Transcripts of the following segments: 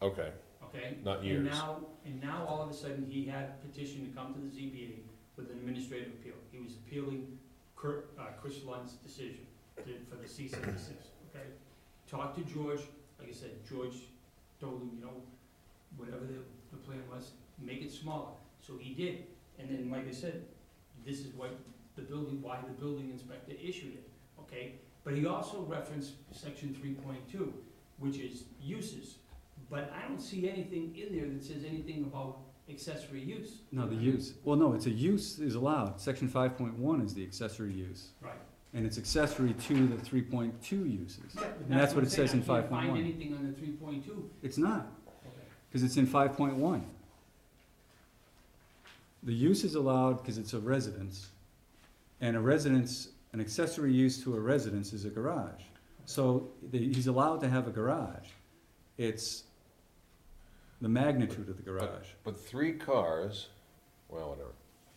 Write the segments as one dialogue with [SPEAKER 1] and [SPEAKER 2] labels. [SPEAKER 1] Okay,
[SPEAKER 2] okay?
[SPEAKER 1] not
[SPEAKER 2] And
[SPEAKER 1] years.
[SPEAKER 2] now, and now all of a sudden, he had petition to come to the ZBA with an administrative appeal. He was appealing Cur- uh, Chris Lund's decision to- for the cease and desist, okay? Talked to George, like I said, George told him, you know, whatever the, the plan was, make it smaller. So he did, and then, like I said, this is what the building, why the building inspector issued it, okay? But he also referenced section three point two, which is uses. But I don't see anything in there that says anything about accessory use.
[SPEAKER 3] No, the use, well, no, it's a use is allowed, section five point one is the accessory use,
[SPEAKER 2] Right.
[SPEAKER 3] and it's accessory to the three point two uses. And that's what it says in
[SPEAKER 2] I can't
[SPEAKER 3] 5.1.
[SPEAKER 2] find anything on the three point two.
[SPEAKER 3] It's not, cause it's in five point one. The use is allowed because it's a residence, and a residence, an accessory use to a residence is a garage. So, the, he's allowed to have a garage, it's the magnitude of the garage.
[SPEAKER 1] But three cars, well, whatever,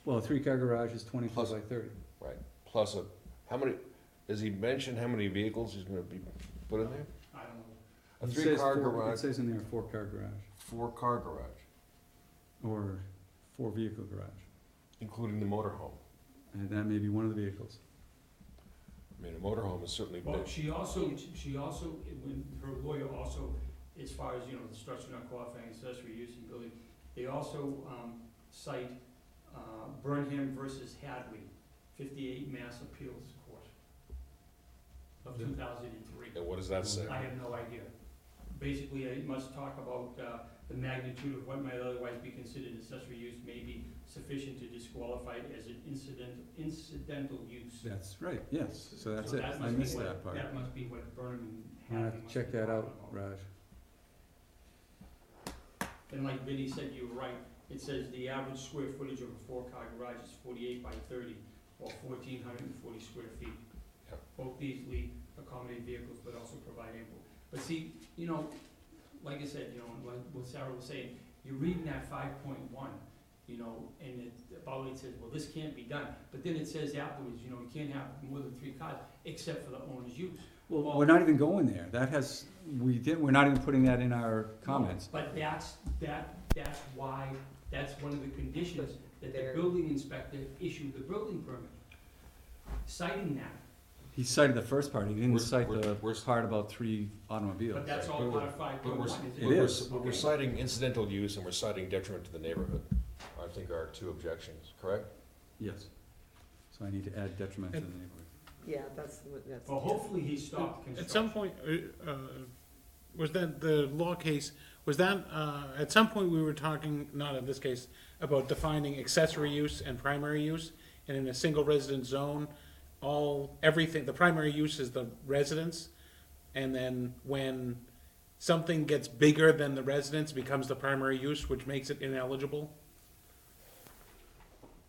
[SPEAKER 3] Well, a three-car garage is twenty-four
[SPEAKER 1] Plus-
[SPEAKER 3] by thirty.
[SPEAKER 1] right, plus a, how many, does he mention how many vehicles he's gonna be put in there?
[SPEAKER 2] I don't know.
[SPEAKER 1] A
[SPEAKER 3] It says
[SPEAKER 1] three-car
[SPEAKER 3] four- It
[SPEAKER 1] garage,
[SPEAKER 3] says in there, a four-car garage,
[SPEAKER 1] four-car garage,
[SPEAKER 3] or four-vehicle garage,
[SPEAKER 1] including the motorhome.
[SPEAKER 3] and that may be one of the vehicles.
[SPEAKER 1] I mean, a motorhome is certainly
[SPEAKER 2] Well,
[SPEAKER 1] big.
[SPEAKER 2] she also, she also, when her lawyer also, as far as, you know, the structure not qualifying accessory use in building, they also, um, cite, uh, Burnham versus Hadley, fifty-eight Mass Appeals Court of two thousand and three.
[SPEAKER 1] And what does that say?
[SPEAKER 2] I have no idea. Basically, I must talk about uh, the magnitude of what might otherwise be considered accessory use may be sufficient to disqualify it as an incident, incidental use.
[SPEAKER 3] That's right, yes, so that's
[SPEAKER 2] So
[SPEAKER 3] it,
[SPEAKER 2] that
[SPEAKER 3] I
[SPEAKER 2] must be
[SPEAKER 3] missed
[SPEAKER 2] what-
[SPEAKER 3] that part.
[SPEAKER 2] That must be what Burnham
[SPEAKER 3] I'm
[SPEAKER 2] had.
[SPEAKER 3] gonna have to check that out, Raj.
[SPEAKER 2] And like Vinnie said, you were right, it says the average square footage of a four-car garage is forty-eight by thirty, or fourteen hundred and forty square feet.
[SPEAKER 1] Yep.
[SPEAKER 2] Both easily accommodate vehicles, but also provide ample. But see, you know, like I said, you know, and like what Sarah was saying, you're reading that five point one, you know, and it, about it says, well, this can't be done. But then it says afterwards, you know, you can't have more than three cars, except for the owner's use.
[SPEAKER 3] Well, we're not even going there, that has, we did, we're not even putting that in our comments.
[SPEAKER 2] But that's, that, that's why, that's one of the conditions that the
[SPEAKER 4] There.
[SPEAKER 2] building inspector issued the building permit, citing that,
[SPEAKER 3] He cited the first part, he didn't
[SPEAKER 1] We're-
[SPEAKER 3] cite
[SPEAKER 1] we're-
[SPEAKER 3] the
[SPEAKER 1] we're-
[SPEAKER 3] part about three automobiles.
[SPEAKER 2] but that's all
[SPEAKER 1] But we're-
[SPEAKER 2] part of five
[SPEAKER 1] But
[SPEAKER 2] point
[SPEAKER 1] we're,
[SPEAKER 2] one,
[SPEAKER 1] but
[SPEAKER 2] isn't
[SPEAKER 3] It
[SPEAKER 1] we're,
[SPEAKER 3] is.
[SPEAKER 1] but we're citing incidental use and we're citing detriment to the neighborhood, I think are our two objections, correct?
[SPEAKER 3] Yes, so I need to add detriment to the neighborhood.
[SPEAKER 4] Yeah, that's, what- that's.
[SPEAKER 2] Well, hopefully he stopped
[SPEAKER 5] At some
[SPEAKER 2] construction.
[SPEAKER 5] point, uh, uh, was that the law case, was that, uh, at some point, we were talking, not in this case, about defining accessory use and primary use, and in a single residence zone, all, everything, the primary use is the residence, and then when something gets bigger than the residence, becomes the primary use, which makes it ineligible?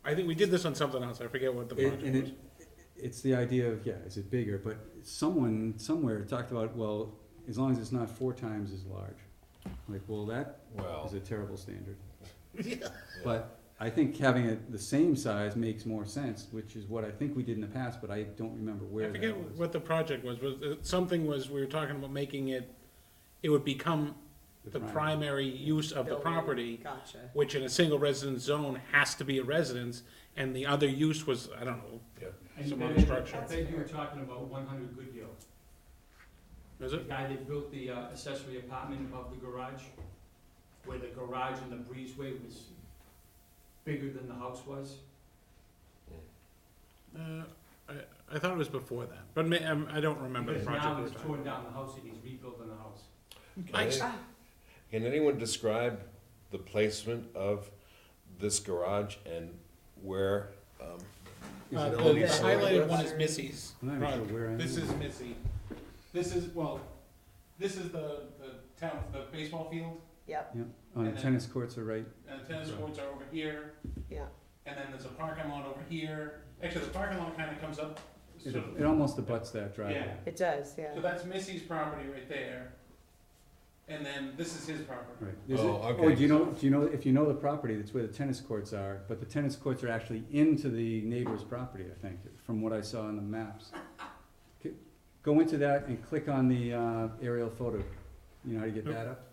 [SPEAKER 5] I think we did this on something else, I forget what the
[SPEAKER 3] It-
[SPEAKER 5] project
[SPEAKER 3] And
[SPEAKER 5] was.
[SPEAKER 3] it, it's the idea of, yeah, is it bigger, but someone, somewhere talked about, well, as long as it's not four times as large. Like, well, that is
[SPEAKER 1] Well,
[SPEAKER 3] a terrible standard.
[SPEAKER 5] Yeah.
[SPEAKER 3] But I think having it the same size makes more sense, which is what I think we did in the past, but I don't remember where
[SPEAKER 5] I forget
[SPEAKER 3] that was.
[SPEAKER 5] what the project was, was, it- something was, we were talking about making it, it would become the
[SPEAKER 3] prime.
[SPEAKER 5] primary use of the
[SPEAKER 4] Building.
[SPEAKER 5] property,
[SPEAKER 4] Gotcha.
[SPEAKER 5] which in a single residence zone has to be a residence, and the other use was, I don't know,
[SPEAKER 2] And you
[SPEAKER 5] some other
[SPEAKER 2] bet-
[SPEAKER 5] structure.
[SPEAKER 2] I bet you were talking about one hundred Goodyear,
[SPEAKER 5] is
[SPEAKER 2] the
[SPEAKER 5] it?
[SPEAKER 2] guy that built the uh, accessory apartment above the garage, where the garage and the breezeway was bigger than the house was.
[SPEAKER 5] Uh, I, I thought it was before that, but ma- um, I don't remember the
[SPEAKER 2] Because
[SPEAKER 5] project.
[SPEAKER 2] now
[SPEAKER 5] we were
[SPEAKER 2] he's
[SPEAKER 5] talking
[SPEAKER 2] torn
[SPEAKER 5] about.
[SPEAKER 2] down the house and he's rebuilding the house.
[SPEAKER 1] can any-
[SPEAKER 5] Nice.
[SPEAKER 1] can anyone describe the placement of this garage and where, um,
[SPEAKER 5] Uh,
[SPEAKER 1] Is it
[SPEAKER 5] the
[SPEAKER 1] only
[SPEAKER 5] the
[SPEAKER 1] solid
[SPEAKER 5] highlighted
[SPEAKER 1] bricks?
[SPEAKER 5] one is Missy's
[SPEAKER 3] I'm not even
[SPEAKER 5] project.
[SPEAKER 3] sure where I am.
[SPEAKER 5] This is Missy. This is, well, this is the, the town, the baseball field,
[SPEAKER 4] Yep,
[SPEAKER 3] Yeah, oh, the
[SPEAKER 5] and then-
[SPEAKER 3] tennis courts are right,
[SPEAKER 5] and tennis courts are over here.
[SPEAKER 4] yeah.
[SPEAKER 5] And then there's a parking lot over here. Actually, the parking lot kind of comes up.
[SPEAKER 3] it,
[SPEAKER 5] sort of-
[SPEAKER 3] it almost abuts that driveway.
[SPEAKER 5] Yeah,
[SPEAKER 4] It does,
[SPEAKER 5] so
[SPEAKER 4] yeah.
[SPEAKER 5] that's Missy's property right there. And then this is his property.
[SPEAKER 3] Right. There's a-
[SPEAKER 1] Oh, okay.
[SPEAKER 3] do you know, do you know, if you know the property, that's where the tennis courts are, but the tennis courts are actually into the neighbor's property, I think, from what I saw on the maps. Go into that and click on the, uh, aerial photo, you know how to get that up?